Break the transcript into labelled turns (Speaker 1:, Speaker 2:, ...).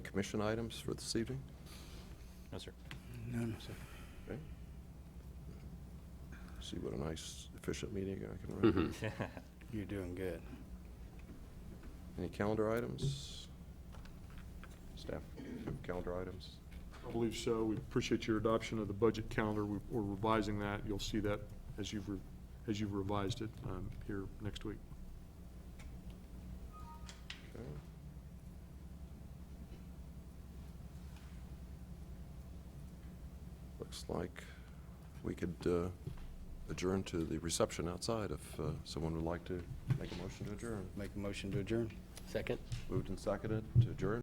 Speaker 1: commission items for this evening?
Speaker 2: No, sir.
Speaker 3: None.
Speaker 1: Okay. See what a nice, efficient meeting I can run.
Speaker 3: You're doing good.
Speaker 1: Any calendar items? Staff, you have calendar items?
Speaker 4: I believe so. We appreciate your adoption of the budget calendar. We- We're revising that. You'll see that as you've, re- as you've revised it um, here next week.
Speaker 1: Okay. Looks like we could uh, adjourn to the reception outside if uh, someone would like to make a motion to adjourn.
Speaker 3: Make a motion to adjourn.
Speaker 2: Second?
Speaker 1: Moved and seconded to adjourn.